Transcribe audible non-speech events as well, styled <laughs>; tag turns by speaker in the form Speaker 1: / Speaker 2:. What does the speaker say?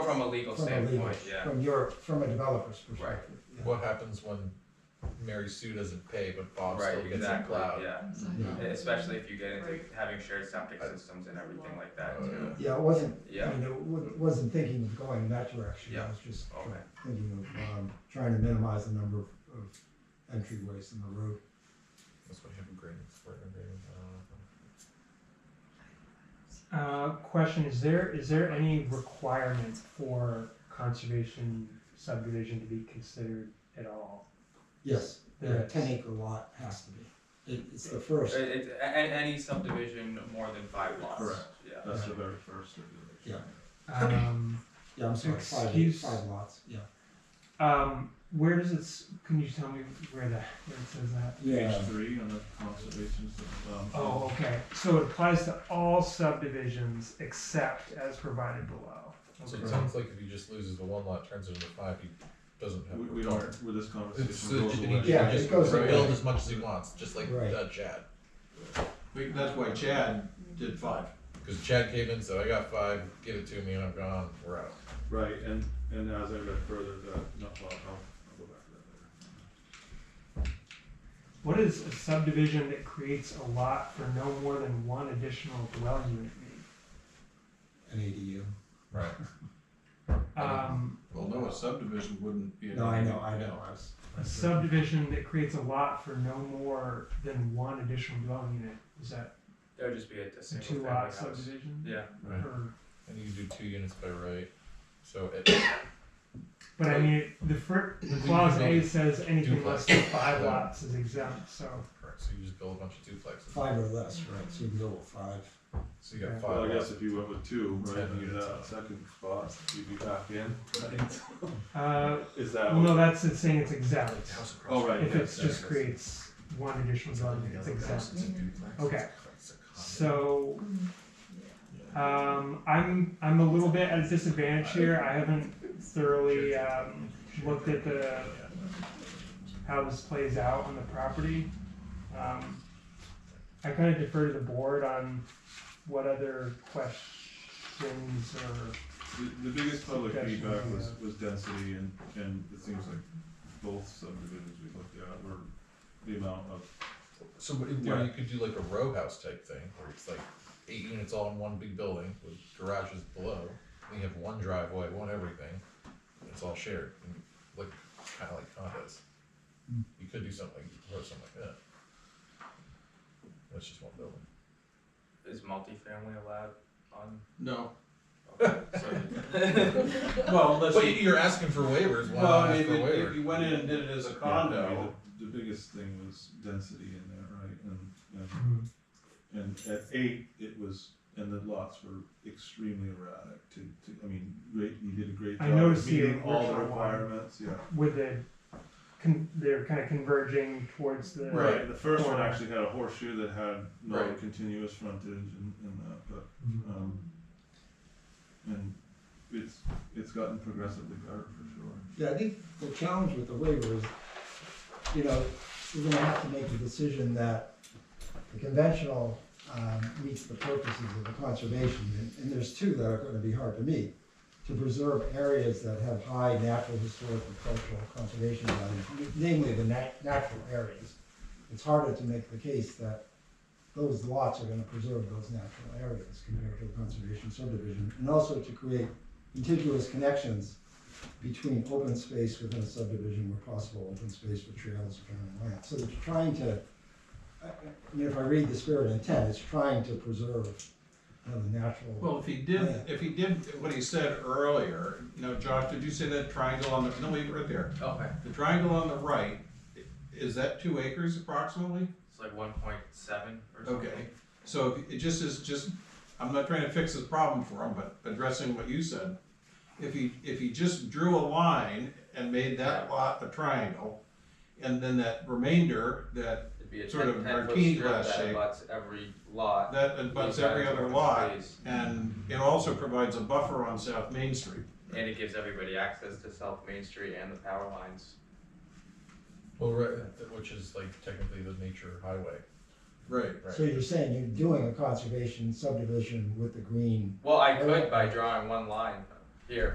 Speaker 1: from a legal
Speaker 2: from a legal,
Speaker 1: standpoint, yeah.
Speaker 2: from your, from a developer's perspective. yeah.
Speaker 3: What happens when Mary Sue doesn't pay, but Bob
Speaker 1: Right,
Speaker 3: still gets
Speaker 1: exactly,
Speaker 3: plowed?
Speaker 1: yeah.
Speaker 2: Yeah.
Speaker 1: Especially if you get into
Speaker 4: Right.
Speaker 1: having shared septic systems and everything like that
Speaker 3: Oh,
Speaker 1: too.
Speaker 2: Yeah, it wasn't, I
Speaker 1: Yeah,
Speaker 2: mean, it wa- wasn't thinking of going in that direction, I
Speaker 1: Yeah.
Speaker 2: was just try-
Speaker 1: Okay.
Speaker 2: thinking of, um, trying to minimize the number of, of entryways in the road.
Speaker 3: That's what him grading for uh,
Speaker 5: Uh, question, is there, is there any requirement for conservation subdivision to be considered at all?
Speaker 2: Yes,
Speaker 5: There
Speaker 2: the
Speaker 5: is.
Speaker 2: ten acre lot has to be, it, it's the first,
Speaker 1: It- it's a- a- any subdivision more than five lots,
Speaker 6: Correct.
Speaker 1: yeah.
Speaker 6: That's the very first regulation.
Speaker 2: yeah,
Speaker 5: Um,
Speaker 2: yeah, I'm sorry, five,
Speaker 5: Excuse-
Speaker 2: five lots, yeah.
Speaker 5: um, where does it, s- can you tell me where the, where it says
Speaker 2: Um,
Speaker 5: that?
Speaker 6: Page three on the conservation system. um,
Speaker 5: Oh, okay, so it applies to all subdivisions except as provided below.
Speaker 6: Oh.
Speaker 3: So
Speaker 5: Okay.
Speaker 3: it sounds like if he just loses the one lot, turns it into five, he doesn't have.
Speaker 6: We,
Speaker 3: a
Speaker 6: we
Speaker 3: car.
Speaker 6: don't, with this
Speaker 3: It's,
Speaker 6: conversation,
Speaker 3: uh,
Speaker 6: goes
Speaker 3: he
Speaker 6: away.
Speaker 3: can
Speaker 2: Yeah, it
Speaker 3: just
Speaker 2: goes away.
Speaker 3: rebuild as much as he wants, just like
Speaker 2: Right.
Speaker 3: uh, Chad,
Speaker 6: We- That's why Chad did five.
Speaker 3: because Chad came in, said, "I got five, give it to me, and I'm gone. We're out."
Speaker 6: Right, and, and as I read further, the, no, well, I'll, I'll go back to that later.
Speaker 5: What is a subdivision that creates a lot for no more than one additional dwelling unit mean?
Speaker 2: An ADU.
Speaker 3: Right.
Speaker 5: Um,
Speaker 7: Well, no, a subdivision wouldn't be. an
Speaker 2: No, I know,
Speaker 7: ADU.
Speaker 2: I know, I was.
Speaker 5: a subdivision that creates a lot for no more than one additional dwelling unit, is that
Speaker 1: That would just be a a
Speaker 5: a
Speaker 1: single
Speaker 5: two
Speaker 1: family
Speaker 5: lot
Speaker 1: house.
Speaker 5: subdivision?
Speaker 1: Yeah,
Speaker 6: Right.
Speaker 5: Or-
Speaker 3: And you do two units by right. So it, <coughs>
Speaker 5: But I mean, it- the fir, the
Speaker 3: We
Speaker 5: clause
Speaker 3: can
Speaker 5: A
Speaker 3: build
Speaker 5: says anything less than
Speaker 3: duplex.
Speaker 5: five
Speaker 3: Yeah.
Speaker 5: lots is exempt, so,
Speaker 3: so you just build a bunch of duplexes.
Speaker 2: Five or less, right, so you can go with five.
Speaker 3: So you got
Speaker 5: Yeah.
Speaker 3: five.
Speaker 6: Well, I
Speaker 3: lots.
Speaker 6: guess if you went with two, right,
Speaker 3: Ten
Speaker 6: and
Speaker 3: units.
Speaker 6: that second spot, you'd be back in,
Speaker 3: <laughs>
Speaker 6: right?
Speaker 5: uh,
Speaker 6: Is that?
Speaker 5: well,
Speaker 6: what-
Speaker 5: no, that's it saying it's exempt.
Speaker 3: House across
Speaker 6: Oh, right,
Speaker 5: If
Speaker 6: yeah,
Speaker 5: it's
Speaker 6: yeah,
Speaker 5: just
Speaker 6: yeah.
Speaker 5: creates one additional dwelling unit, it's exempt.
Speaker 3: It's a duplex.
Speaker 5: Okay.
Speaker 3: It's a condo.
Speaker 5: So,
Speaker 3: Yeah.
Speaker 5: um, I'm, I'm a little bit at a disadvantage here, I haven't thoroughly, um, looked at the, how this plays out on the property. Um, I kind of defer to the board on what other questions or,
Speaker 6: The, the biggest public
Speaker 5: Suggestion,
Speaker 6: feedback was,
Speaker 5: yeah.
Speaker 6: was density and, and it seems like both subdivisions we looked at were the amount of,
Speaker 3: So wh-
Speaker 6: Yeah.
Speaker 3: where you could do like a row house type thing, where it's like eight units all in one big building with garages below, and you have one driveway, one everything, and it's all shared, and like kind of like condos.
Speaker 2: Mm.
Speaker 3: You could do something, like- or something like that. That's just one building.
Speaker 1: is multifamily allowed on?
Speaker 7: No,
Speaker 1: so-
Speaker 7: well, unless
Speaker 3: But you-
Speaker 7: you,
Speaker 3: you're asking for waivers. Why
Speaker 7: well,
Speaker 3: not
Speaker 7: I
Speaker 3: ask
Speaker 7: mean,
Speaker 3: for a
Speaker 7: if, if
Speaker 3: waiver?
Speaker 7: you went in and did it as a
Speaker 6: Yeah, I mean,
Speaker 7: condo,
Speaker 6: The the biggest thing was density in there, right, and, and, and at eight, it was, and the lots were extremely erratic to, to, I mean, great, you did a great
Speaker 5: I
Speaker 6: job of
Speaker 5: noticed you
Speaker 6: meeting all the
Speaker 5: worked on one.
Speaker 6: requirements, yeah.
Speaker 5: with the, con- they're kind of converging towards the.
Speaker 6: Right, the first one
Speaker 5: Corner.
Speaker 6: actually had a horseshoe that had no
Speaker 3: Right.
Speaker 6: continuous frontage and, and that, but Um, and it's, it's gotten progressively better for sure.
Speaker 2: Yeah, I think the challenge with the waiver is, you know, you're gonna have to make the decision that the conventional, um, meets the purposes of the conservation, and, and there's two that are gonna be hard to meet. To preserve areas that have high natural, historic, and cultural conservation value, namely the nat- natural areas. It's harder to make the case that those lots are gonna preserve those natural areas compared to the conservation subdivision, and also to create contiguous connections between open space within a subdivision where possible, open space for trails, or land. So it's trying to, I, I I mean, if I read the spirit and intent, it's trying to preserve you know, the natural.
Speaker 7: well, if he did, if he did what he said earlier, you know, Josh, did you say that triangle on the, no, leave it right there.
Speaker 1: Okay,
Speaker 7: The triangle on the right, i- is that two acres approximately?
Speaker 1: it's like one point seven or something.
Speaker 7: Okay, so if- it just is, just, I'm not trying to fix this problem for him, but addressing what you said. If he, if he just drew a line and made that lot a triangle, and then that remainder, that,
Speaker 1: It'd be a
Speaker 7: Sort of
Speaker 1: ten, ten foot
Speaker 7: marquee
Speaker 1: strip
Speaker 7: glass
Speaker 1: that
Speaker 7: shape.
Speaker 1: abuts every lot.
Speaker 7: that abuts every other lot, and it also provides a buffer on South Main Street.
Speaker 1: And it gives everybody access to South Main Street and the power lines.
Speaker 3: Well, right, th- which is like technically the nature highway,
Speaker 7: Right.
Speaker 3: right?
Speaker 2: So you're saying you're doing a conservation subdivision with the green
Speaker 1: Well, I could by drawing one line here,